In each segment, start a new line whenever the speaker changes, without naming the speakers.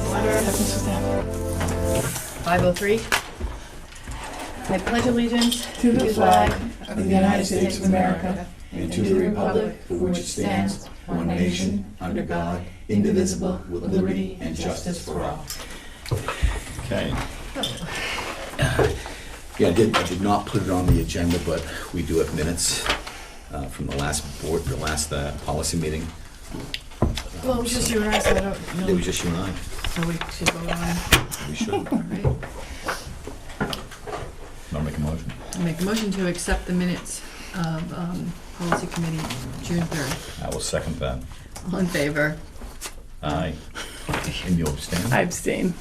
happens with them.
503. I pledge allegiance
To the flag
of
of the United States of America
and to the republic for which it stands, one nation, under God, indivisible, with liberty and justice for all. Okay. Yeah, I did, I did not put it on the agenda, but we do have minutes uh, from the last board, the last uh, policy meeting.
Well, it was just you and I, so I don't
It
know.
was just you and I.
So we should go
We should.
on, right?
I'll make a motion.
I Make a motion to accept the minutes of um, Policy Committee, June 3rd.
I will second that.
All in favor?
Aye. And you abstain?
I abstain.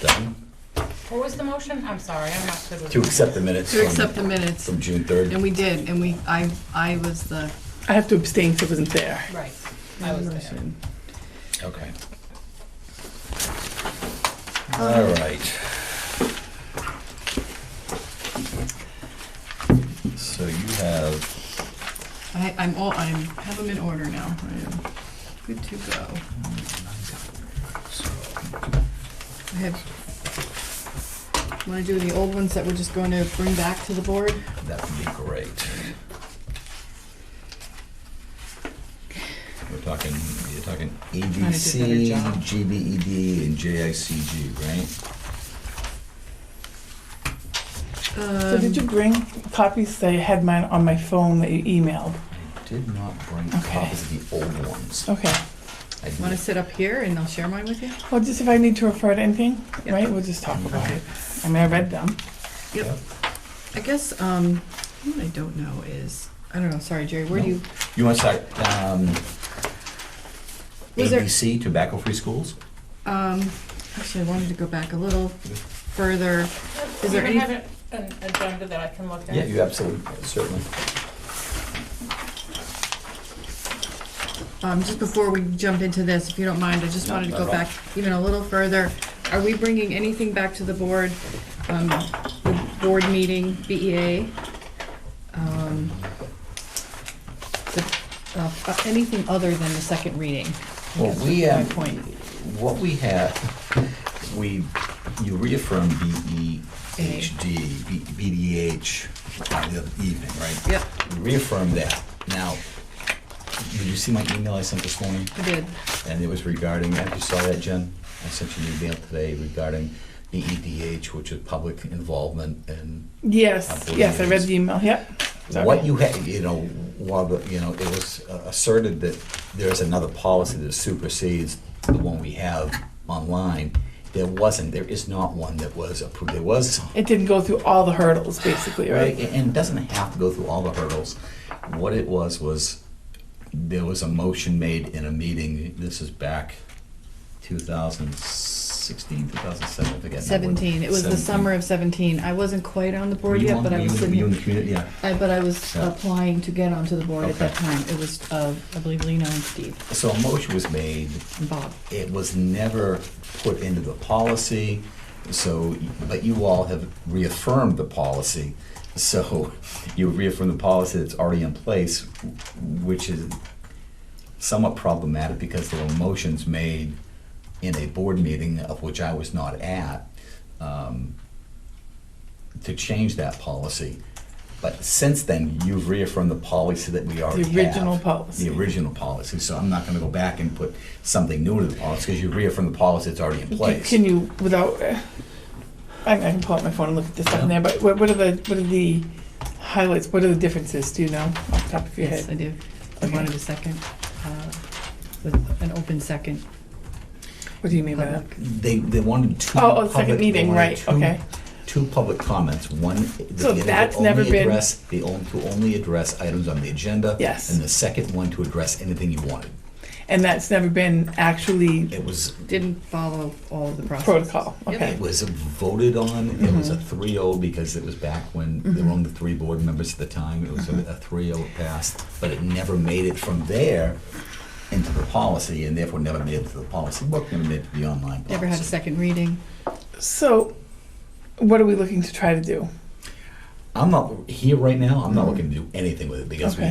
Done?
What was the motion? I'm sorry, I'm not good with.
To accept the minutes
To accept the
from,
minutes,
from June
and
3rd.
we did, and we, I, I was the.
I have to abstain because I wasn't there.
Right, I was there.
Okay. All right. So you have,
I, I'm all, I have them in order now. I am good to go. I have, want to do the old ones that we're just going to bring back to the board?
that would be great. We're talking, you're talking E
better
EDC,
job.
GBED, E and JICG, right?
So
Um,
did you bring copies? I had mine on my phone that you emailed.
I did not bring
Okay.
copies of the old ones.
Okay.
I did-
Want to sit up here and I'll share mine with you?
Well, just if I need to refer to anything,
Yeah.
right? We'll just talk about
Okay.
it. I mean, I read them.
Yep. I guess, um, what I don't know is, I don't know, sorry, Jerry, where do you,
You want to start, um,
Was there-
ABC, tobacco-free schools?
um, actually, I wanted to go back a little further. Is there
Do
any-
you have an- an agenda that I can look at?
Yeah, you absolutely, certainly.
Um, just before we jump into this, if you don't mind, I just
No,
wanted to
not
go
at all.
back even a little further. Are we bringing anything back to the board, um, the board meeting, BEA? um, the- uh, uh, Anything other than the second reading? I
Well,
guess
we,
is my
um,
point.
what we have, we, you reaffirm BEHD, B- BDH uh, the other evening, right?
Yep.
You Reaffirm that. Now, did you see my email I sent this morning?
I did.
And it was regarding, have you saw that, Jen? I sent you an email today regarding BEDH, which is public involvement and
Yes.
Upload
Yes, I read
these.
the email. Yep. Sorry.
what you had, you know, while the, you know, it was uh, asserted that there's another policy that supersedes the one we have online. There wasn't, there is not one that was approved, there was,
It didn't go through all the hurdles, basically,
right,
right?
and it doesn't have to go through all the hurdles. What it was, was there was a motion made in a meeting, this is back 2016, 2017, I forget. now.
17, it was the
17.
summer of 17. I wasn't quite on the
Were
board
you
yet,
on-
but I
were
was
you- Were you
sitting,
in the community, yeah.
I- but I was
Yeah.
applying to get onto the board at
Okay.
that time. It was, uh, I believe, Lino and Steve
So a motion was made
and Bob.
it was never put into the policy, so, but you all have reaffirmed the policy. So you reaffirm the policy that's already in place, which is somewhat problematic because there were motions made in a board meeting of which I was not at, um, to change that policy. But since then, you've reaffirmed the policy that we already have.
original policy.
The original policy, so I'm not gonna go back and put something new to the policy, because you reaffirmed the policy that's already in place.
Can you, without, uh, I I can pull up my phone and look at the stuff in there, but what what are the, what are the highlights? What are the differences? Do you know off the top of your
Yes, I
head?
do. I
Okay.
wanted a second, uh, with an open second.
What do you mean by that?
public.
They, they wanted two.
Oh, oh, second
public- they
meeting,
wanted
right,
two-
okay.
Two public comments, one. that they
So
would
that's
only
never been-
address- They only, to only address items on the agenda.
Yes.
And the second one to address anything you wanted.
And that's never been actually
It was,
Didn't follow all of the process.
protocol,
Yep.
okay.
it was voted on, it was a
Mm-hmm.
3-0 because it was back when there were only three board members at the time. It was a a 3-0 it passed, but it never made it from there into the policy and therefore never made it to the policy book, never made it to the online policy.
Never had a second reading.
So, what are we looking to try to do?
Mm-hmm.
I'm not, here right now, I'm not looking to do anything with it because we
Okay.